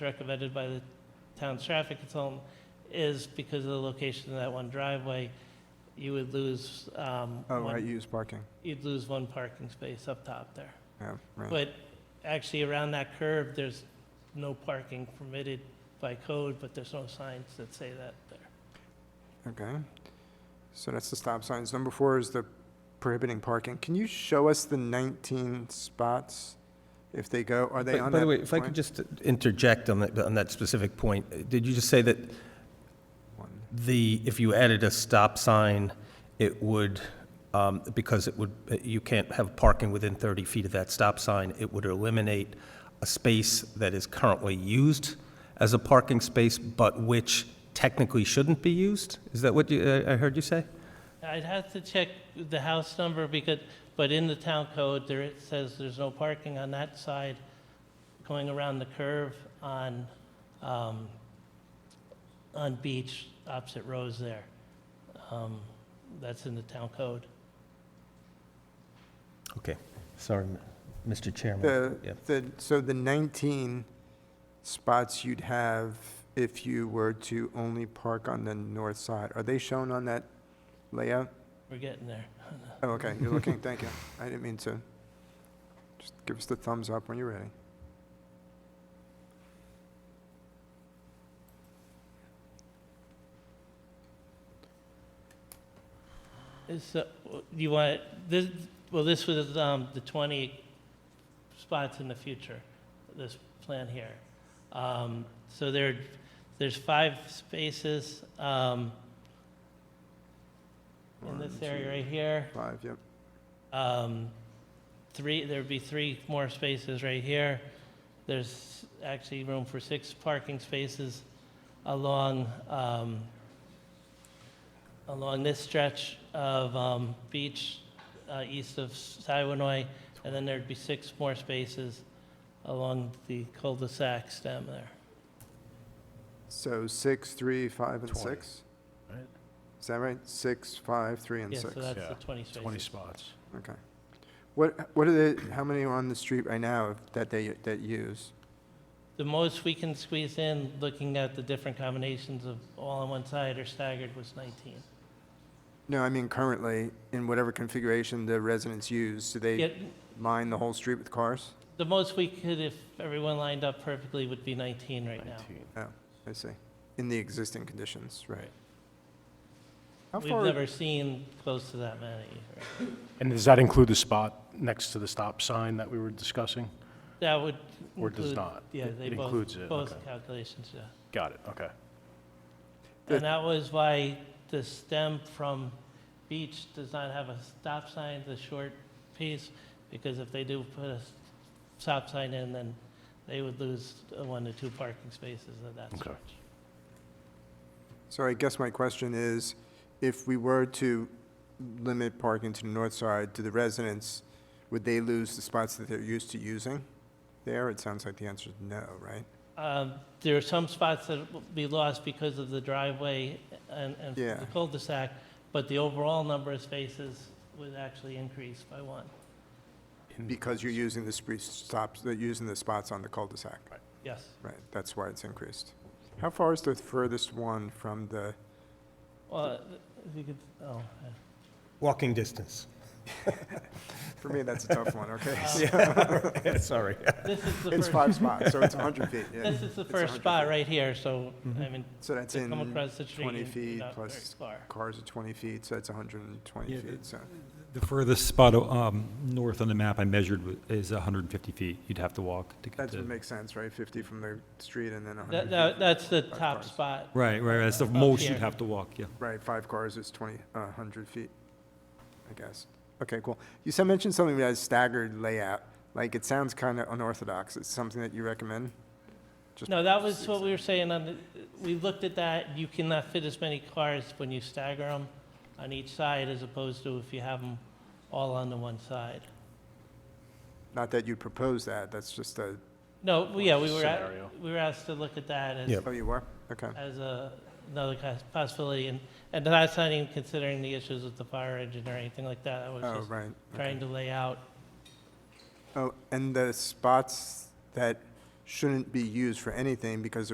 recommended by the town's traffic consultant, is because of the location of that one driveway, you would lose, um, Oh, one- right, used parking. you'd lose one parking space up top there. Yeah, right. But actually, around that curve, there's no parking permitted by code, but there's no signs that say that there. Okay. So that's the stop signs. Number four is the prohibiting parking. Can you show us the 19 spots? If they go, are they By- on By that the way, if I could point? just interject on that, on that specific point, uh, did you just say that One. the, if you added a stop sign, it would, um, because it would, you can't have parking within 30 feet of that stop sign, it would eliminate a space that is currently used as a parking space, but which technically shouldn't be used? Is that what you, uh, I I heard you say? I'd have to check the house number because, but in the town code, there it says there's no parking on that side going around the curve on, um, on Beach opposite Rose there. Um, That's in the town code. Okay, sorry, m- Mr. Chairman. Yeah. The, the, so the 19 spots you'd have if you were to only park on the north side, are they shown on that layout? We're getting there. Oh, okay, you're looking, thank you. I didn't mean to. Just give us the thumbs up when you're ready. So, uh, you want, this, well, this was, um, the twenty spots in the future, this plan here. Um, so there, there's five spaces, um, in this One, area two, right here. Five, yep. Um, three, there'd be three more spaces right here. There's actually room for six parking spaces along, um, along this stretch of, um, beach, uh, east of Siwanoy. And then there'd be six more spaces along the cul-de-sac stem there. So six, three, five, and Twenty. six? Right. Is that right? Six, five, three, and Yeah, six? so that's Yeah, the twenty 20 spaces. spots. Okay. What, what are the, how many are on the street right now that they, that use? The most we can squeeze in, looking at the different combinations of all on one side or staggered, was nineteen. No, I mean currently, in whatever configuration the residents use, do Yeah, they line the whole street with cars? The most we could, if everyone lined up perfectly, would be 19 right now. 19. I see. In the existing conditions, right. How We've far- never seen close to that many. And does that include the spot next to the stop sign that we were discussing? That would Or does include- not? Yeah, It- they it both, includes it, both okay. calculations, yeah. Got it, okay. The- And that was why the stem from Beach does not have a stop sign, the short piece, because if they do put a s- stop sign in, then they would lose uh, one to two parking spaces of that Okay. stretch. So I guess my question is, if we were to limit parking to the north side, to the residents, would they lose the spots that they're used to using there? It sounds like the answer is no, right? Mm-hmm. Um, There are some spots that will be lost because of the driveway and, and Yeah. the cul-de-sac, but the overall number of spaces would actually increase by one. Because you're using the street stops, they're using the spots on the cul-de-sac. Yes. Right, that's why it's increased. How far is the furthest one from the, Well, Uh, if you could, oh, yeah. Walking distance. for me, that's a tough one, okay? Um, Yeah, Sorry. this is the It's first, five spots, so it's 100 feet, yeah. this is the It's first 100 spot feet. right here, so, I mean, So that's to come in, across the street 20 and feet not very plus- far. cars are 20 feet, so that's 120 Yeah, feet, the- so. The furthest spot um, north on the map I measured wa- is 150 feet. You'd have to walk to get That would to. make sense, right? 50 from the street and then 100 That, feet that- from- that's the Five top cars. spot. Right, right, that's the Up most here. you'd have to walk, yeah. Right, five cars is 20, uh, 100 feet, I guess. Okay, cool. You said, mentioned something about staggered layout, like, it sounds kind of unorthodox. It's something that you recommend? Just- No, that was what we were saying on the, we looked at that, you cannot fit as many cars when you stagger them on each side as opposed to if you have them all on the one side. Not that you propose that, that's just a, No, we- yeah, we were, Scenario. at- we were asked to look at that as, Yep. oh, you were? Okay. as a, another cos- possibility, and, and that's not even considering the issues with the fire engine or anything like that, I was Oh, just right. okay. trying to lay out Oh, and the spots that shouldn't be used for anything because